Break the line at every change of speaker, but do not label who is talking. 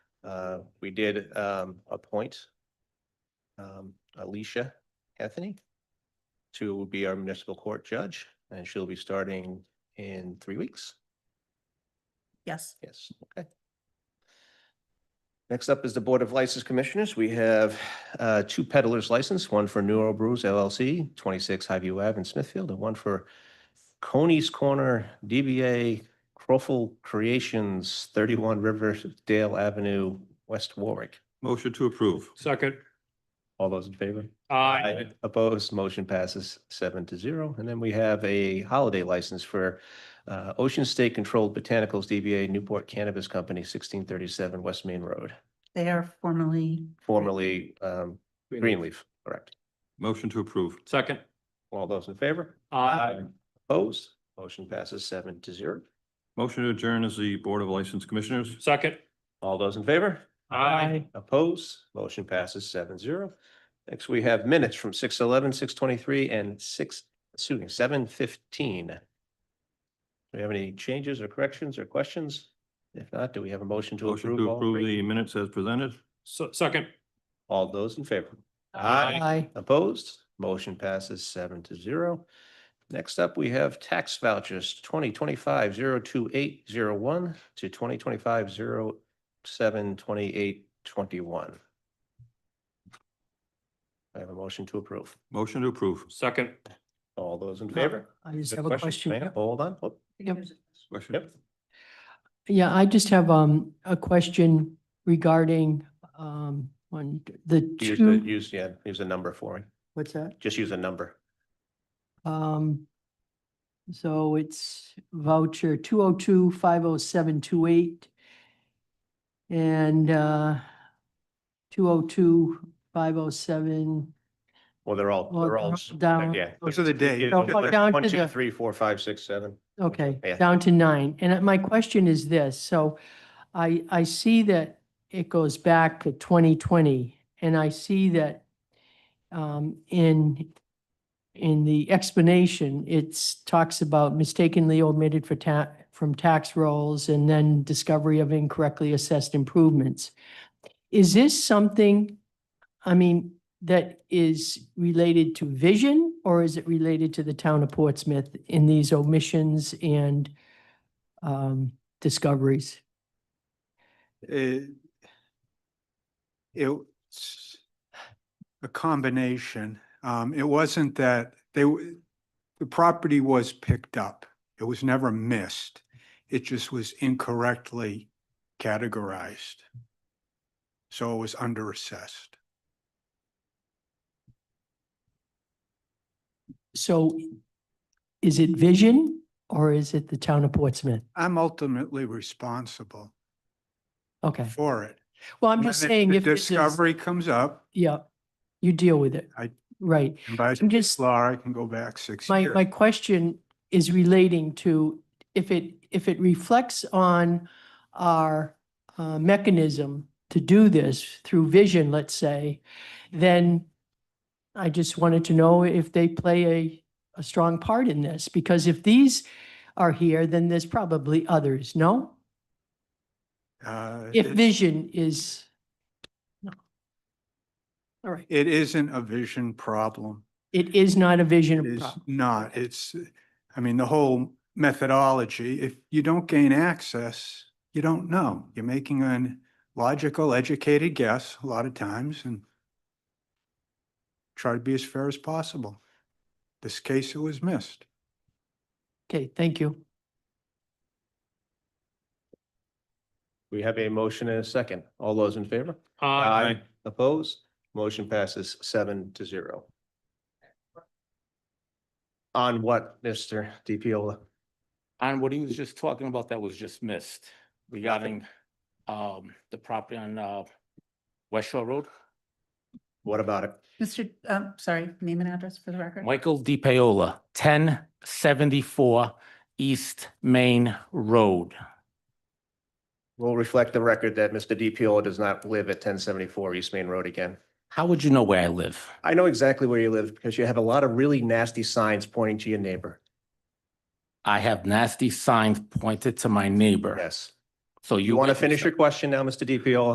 Uh, we did, um, appoint um, Alicia Anthony to be our municipal court judge, and she'll be starting in three weeks.
Yes.
Yes, okay. Next up is the Board of License Commissioners. We have uh, two peddlers license, one for Neuro Brews LLC, 26 Highview Ave in Smithfield, and one for Coney's Corner DBA Crofel Creations, 31 Riverdale Avenue, West Warwick.
Motion to approve.
Second,
All those in favor?
aye.
Opposed, motion passes seven to zero. And then we have a holiday license for uh, Ocean State Controlled Botanicals DBA Newport Cannabis Company, sixteen thirty-seven West Main Road,
They are formerly,
formerly um, Greenleaf, correct.
Motion to approve.
Second,
All those in favor?
aye.
Opposed, motion passes seven to zero.
Motion to adjourn as the Board of License Commissioners.
Second,
All those in favor?
aye.
Opposed, motion passes seven zero. Next, we have minutes from six eleven, six twenty-three, and six, excuse me, seven fifteen. Do we have any changes or corrections or questions? If not, do we have a motion to
Motion to
approve all
approve
three?
the minutes as presented.
So, second,
All those in favor?
Aye.
Opposed, motion passes seven to zero. Next up, we have tax vouchers twenty twenty-five zero two eight zero one to twenty twenty-five zero seven twenty-eight twenty-one. I have a motion to approve.
Motion to approve.
second,
All those in favor?
I just have a question.
Hang on, Hold on. Whoop.
Yep.
Question.
Yep.
Yeah, I just have um a question regarding um on the
Use the,
two,
use, yeah, use a number for me.
what's that?
Just use a number.
Um, so it's voucher two oh two five oh seven two eight and uh two oh two five oh seven.
Well, they're all,
Well,
they're all.
they're all down.
Yeah.
Those
are the days.
Don't go down
One,
to
two,
the-
three, four, five, six, seven.
Okay,
Yeah.
down to nine. And uh, my question is this, so I, I see that it goes back to twenty twenty. And I see that um, in, in the explanation, it's talks about mistakenly omitted for ta, from tax rolls and then discovery of incorrectly assessed improvements. Is this something, I mean, that is related to vision or is it related to the town of Portsmouth in these omissions and um, discoveries?
it, it's a combination. Um, it wasn't that they, w- the property was picked up. It was never missed. It just was incorrectly categorized. So it was underassessed.
So is it vision or is it the town of Portsmouth?
I'm ultimately responsible
Okay,
for it.
well, I'm just
When
saying
the
if this is,
Discovery comes up,
yeah, you deal with it.
I-
Right.
and by
I'm just,
law, I can go back six
my,
years.
my question is relating to if it, if it reflects on our uh, mechanism to do this through vision, let's say, then I just wanted to know if they play a, a strong part in this, because if these are here, then there's probably others, no?
Uh,
If
it's-
vision is. no. All right,
It isn't a vision problem.
it is not a vision.
is
problem.
not, it's, I mean, the whole methodology, if you don't gain access, you don't know. You're making an logical, educated guess a lot of times and try to be as fair as possible. This case, it was missed.
Okay, thank you.
We have a motion and a second. All those in favor?
aye.
Opposed? Motion passes seven to zero. On what, Mr. DiPiola?
on what he was just talking about that was just missed regarding um the property on uh West Shore Road,
What about it?
Mr., um, sorry, name and address for the record.
Michael Di Paola, ten seventy-four East Main Road.
We'll reflect the record that Mr. DiPiola does not live at ten seventy-four East Main Road again.
How would you know where I live?
I know exactly where you live because you have a lot of really nasty signs pointing to your neighbor.
I have nasty signs pointed to my neighbor.
Yes.
So you.
You want to
witnessed
finish
it.
your question now, Mr. DiPiola?